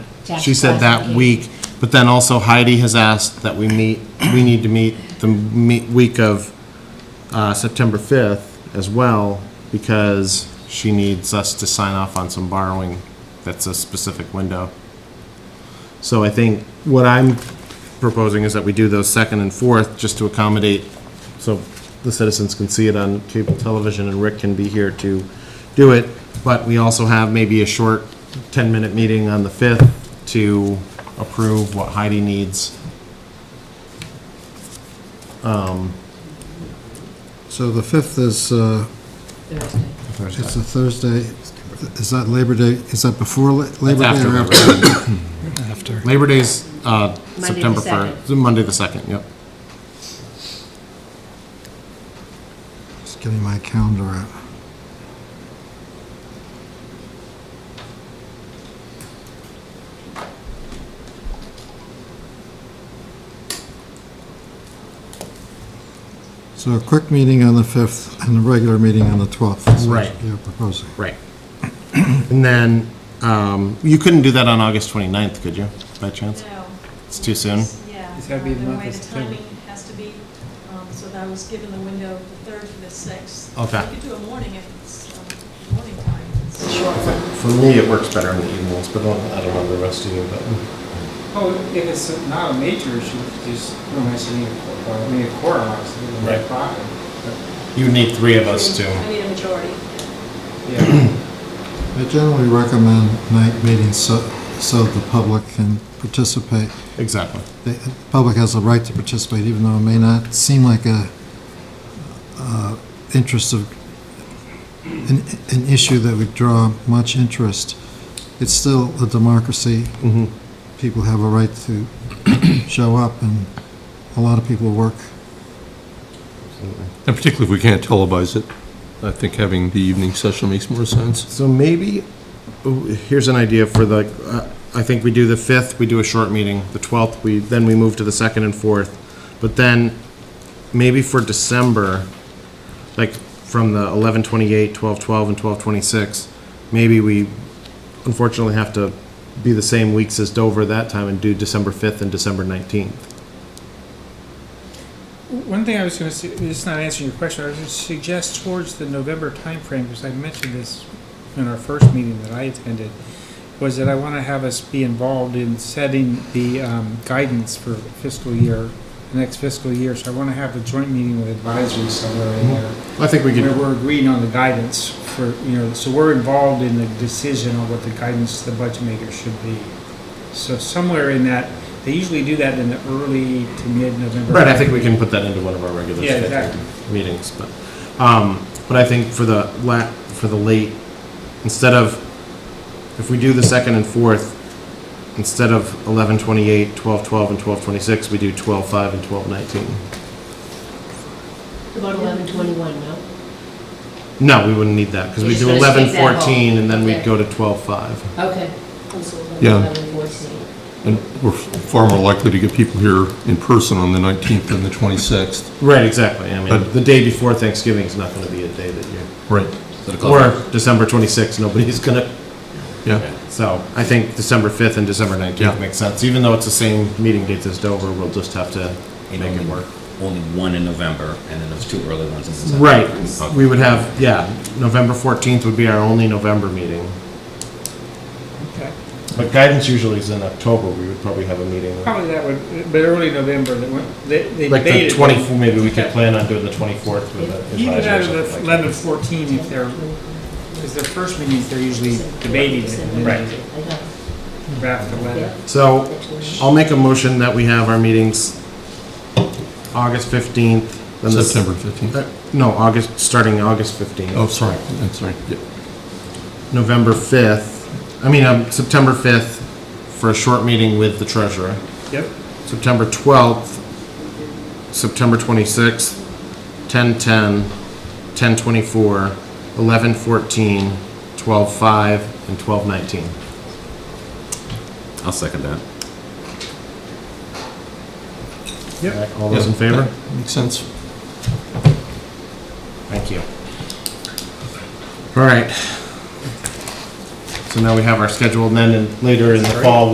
Jack's She said that last week, but then also Heidi has asked that we meet, we need to meet the me- week of uh, September 5th as well, because she needs us to sign off on some borrowing that's a specific window. So I think what I'm proposing is that we do those second and fourth, just to accommodate, so the citizens can see it on cable television, and Rick can be here to do it, but we also have maybe a short 10-minute meeting on the 5th to approve what Heidi needs. So the 5th is, uh, Thursday. it's a Thursday. Is that Labor Day, is that before La- Labor after Day or Labor after? Labor Day's uh, the September 1st. 2nd. It's Monday the 2nd, yep. Just getting my calendar out. So a quick meeting on the 5th and a regular meeting on the 12th. That's what Right. You're proposing. Right. And then, um, you couldn't do that on August 29th, could you, by chance? No. It's too soon? Yeah. It's gotta be the um, month way of September. The timing has to be, um, so that was given the window the third to the sixth. Okay. You could do a morning if it's, um, morning time. It's- For me, it works better in the evenings, but I don't know the rest of you, but. Oh, if it's not a major issue, just, you don't necessarily need a quorum, I mean, a quorum, obviously, is Right. a problem. but, You need three of us I to. need a majority. Yeah, I generally recommend night meetings so, so the public can participate. Exactly. The the public has a right to participate, even though it may not seem like a, uh, interest of, an, an issue that would draw much interest. It's still a democracy. Mm-hmm. People have a right to show up, and a lot of people work. And particularly if we can't televise it, I think having the evening session makes more sense. So maybe, ooh, here's an idea for the, uh, I think we do the 5th, we do a short meeting, the 12th, we, then we move to the 2nd and 4th. But then, maybe for December, like from the 11/28, 12/12, and 12/26, maybe we unfortunately have to be the same weeks as Dover that time and do December 5th and December 19th. one thing I was gonna say, it's not answering your question, I was gonna suggest towards the November timeframe, because I mentioned this in our first meeting that I attended, was that I wanna have us be involved in setting the, um, guidance for fiscal year, the next fiscal year, so I wanna have a joint meeting with advisory somewhere in there. I think we where could, we're agreeing on the guidance for, you know, so we're involved in the decision on what the guidance the budget maker should be. So somewhere in that, they usually do that in the early to mid-November. right, I think we can put that into one of our regular Yeah, scheduled exactly. meetings, but, um, but I think for the la, for the late, instead of, if we do the second and fourth, instead of 11/28, 12/12, and 12/26, we do 12/5 and 12/19. About eleven twenty-one, no? No, we wouldn't need that, because we We're do just gonna eleven skip that fourteen, and then we'd Okay. go to twelve five. Okay. Yeah. Eleven fourteen. And we're far more likely to get people here in person on the 19th than the 26th. Right, exactly, I mean, But- the day before Thanksgiving is not gonna be a day that you're, Right. or December twenty-sixth, nobody's gonna, Yeah, so I think December fifth and December Yeah. nineteenth makes sense, even though it's the same meeting dates as Dover, we'll just have to make it work. Only one in November, and then those two early ones in December. Right, Uh, Okay. we would have, yeah, November fourteenth would be our only November meeting, Okay. but guidance usually is in October, we would probably have a meeting. Probably that would, but early November, that went- they, they Like the debated. twenty, maybe we could plan on doing the twenty-fourth with the Even advisor or out of something the like that. eleven, fourteen, if they're, because their first meetings, they're usually debating it, and then they draft a letter. So I'll make a motion that we have our meetings August 15th. then the- September 15th. Uh, No, August, starting August 15th. Oh, sorry, I'm sorry. Yeah. November 5th, I mean, um, September 5th for a short meeting with the treasurer. Yep. September 12th, September 26th, 10:10, 10:24, 11:14, 12:05, and 12:19. I'll second that. Yep. All those in favor? Yeah, Makes sense. Thank you. All right. So now we have our schedule, and then in- later in the fall,